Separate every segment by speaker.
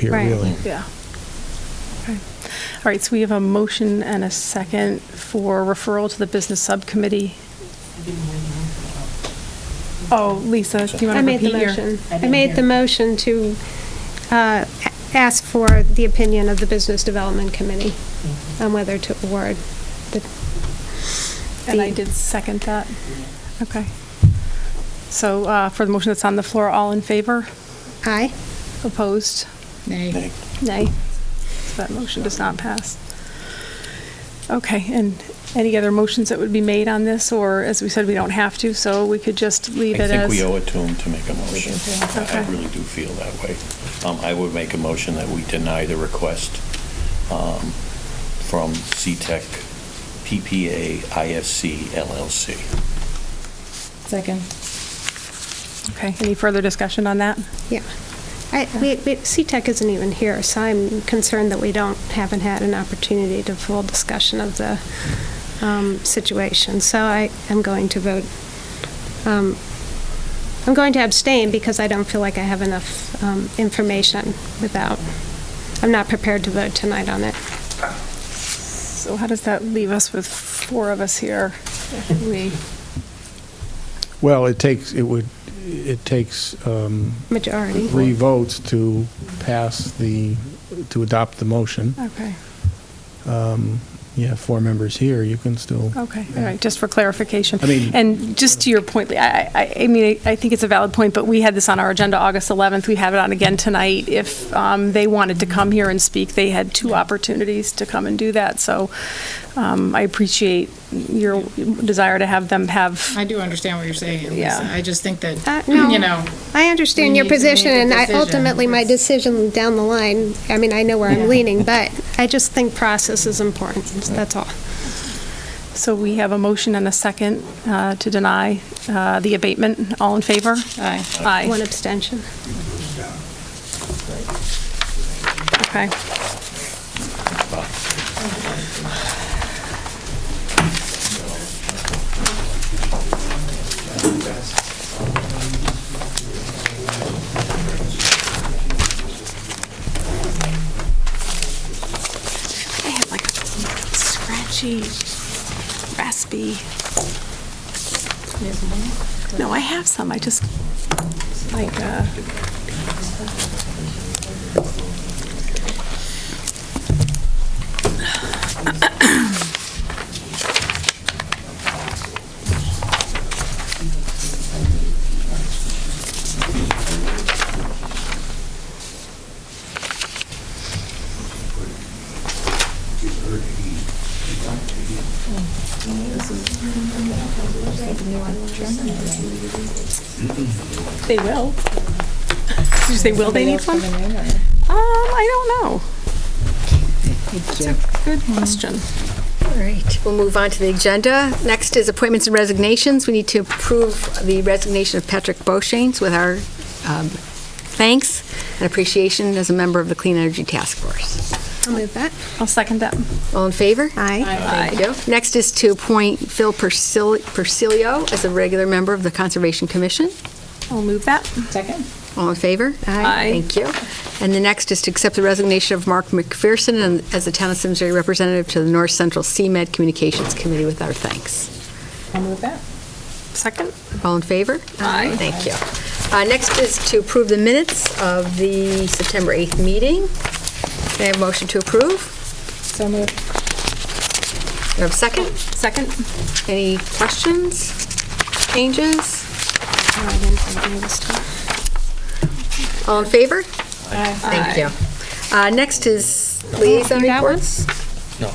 Speaker 1: here,
Speaker 2: Right.
Speaker 1: really.
Speaker 3: Yeah.
Speaker 2: Okay. All right, so we have a motion and a second for referral to the business subcommittee. Oh, Lisa, do you want
Speaker 4: I
Speaker 2: to
Speaker 4: made the
Speaker 2: repeat your?
Speaker 4: motion.
Speaker 3: I
Speaker 4: I
Speaker 3: didn't
Speaker 4: made
Speaker 3: hear.
Speaker 4: the motion to uh, a- ask for the opinion of the Business Development Committee
Speaker 3: Mm-hmm.
Speaker 4: on whether to award the,
Speaker 2: And I
Speaker 4: the-
Speaker 2: did second that. Okay. So uh, for the motion that's on the floor, all in favor?
Speaker 4: aye?
Speaker 2: Opposed?
Speaker 1: Nay.
Speaker 2: Nay. So that motion does not pass. Okay, and any other motions that would be made on this, or as we said, we don't have to, so we could just leave
Speaker 5: I
Speaker 2: it
Speaker 5: think
Speaker 2: as?
Speaker 5: we owe it to him to make a motion. I- I
Speaker 2: Okay.
Speaker 5: really do feel that way. Um, I would make a motion that we deny the request um, from E CTEC PPA ISC LLC.
Speaker 6: Second.
Speaker 2: Okay, any further discussion on that?
Speaker 4: Yeah. I, we, we- CTEC isn't even here, so I'm concerned that we don't, haven't had an opportunity to full discussion of the um, situation. So I am going to vote, um, I'm going to abstain because I don't feel like I have enough um, information without, I'm not prepared to vote tonight on it.
Speaker 2: So how does that leave us with four of us here? if We,
Speaker 1: Well, it takes, it would, it takes um,
Speaker 4: Majority.
Speaker 1: three votes to pass the, to adopt the motion.
Speaker 2: okay,
Speaker 1: Um, You have four members here, you can still.
Speaker 2: okay, all right, just for clarification.
Speaker 1: I mean-
Speaker 2: And just to your point, Lee, I, I, I mean, I think it's a valid point, but we had this on our agenda August 11th. We have it on again tonight. If um, they wanted to come here and speak, they had two opportunities to come and do that. So um, I appreciate your desire to have them have,
Speaker 6: I do understand what you're saying, Lisa.
Speaker 2: Yeah.
Speaker 6: I just think
Speaker 4: Uh,
Speaker 6: that,
Speaker 4: no.
Speaker 6: you know,
Speaker 4: I understand
Speaker 6: We
Speaker 4: your
Speaker 6: need to make a
Speaker 4: position, and I,
Speaker 6: decision.
Speaker 4: ultimately, my decision down the line, I mean, I know where I'm leaning, but I just think process is important, that's all.
Speaker 2: so we have a motion and a second uh, to deny uh, the abatement. All in favor?
Speaker 6: aye.
Speaker 2: Aye.
Speaker 4: One abstention.
Speaker 2: Okay. I have like a scratchy, raspy. No, I have some, I just, like, uh, they will. Did you say will they need one? Um, I don't know. It's a good question.
Speaker 7: All right, we'll move on to the agenda. Next is appointments and resignations. We need to approve the resignation of Patrick Boshanes with our um, thanks and appreciation as a member of the Clean Energy Task Force.
Speaker 4: I'll move that.
Speaker 2: I'll second that.
Speaker 7: All in favor?
Speaker 4: Aye.
Speaker 7: Thank you. Next is to appoint Phil Persil- Persilio as a regular member of the Conservation Commission.
Speaker 2: I'll move that.
Speaker 6: Second?
Speaker 7: All in favor?
Speaker 2: Aye.
Speaker 7: Thank you. And the next is to accept the resignation of Mark McPherson and- as the Town of Simsbury Representative to the North Central CMed Communications Committee with our thanks.
Speaker 6: I'll move that.
Speaker 2: Second?
Speaker 7: All in favor?
Speaker 2: Aye.
Speaker 7: Thank you. Uh, Next is to approve the minutes of the September 8th meeting. May I have a motion to approve?
Speaker 6: So moved.
Speaker 7: Do I have a second?
Speaker 2: Second?
Speaker 7: Any questions? Changes? All in favor? Thank you. Uh, Next is liaison
Speaker 4: You got one?
Speaker 7: reports.
Speaker 5: No,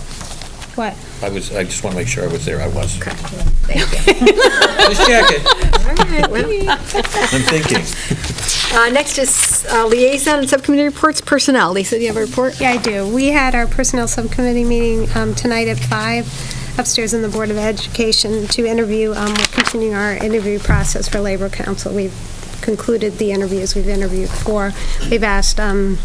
Speaker 4: What?
Speaker 5: I was, I just want to make sure I was there. I was.
Speaker 8: Just check it.
Speaker 7: All right, well,
Speaker 5: I'm thinking.
Speaker 7: uh, Next is uh, liaison and subcommittee reports, personnel. Lisa, do you have a report?
Speaker 4: Yeah, I do. We had our Personnel Subcommittee meeting um, tonight at five upstairs in the Board of Education to interview, um, we're continuing our interview process for Labor Council. We've concluded the interviews we've interviewed for. We've asked um,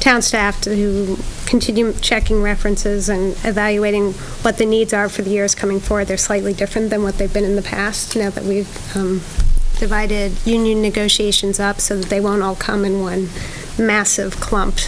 Speaker 4: town staff to continue checking references and evaluating what the needs are for the years coming forward. They're slightly different than what they've been in the past, now that we've um, divided union negotiations up so that they won't all come in one massive clump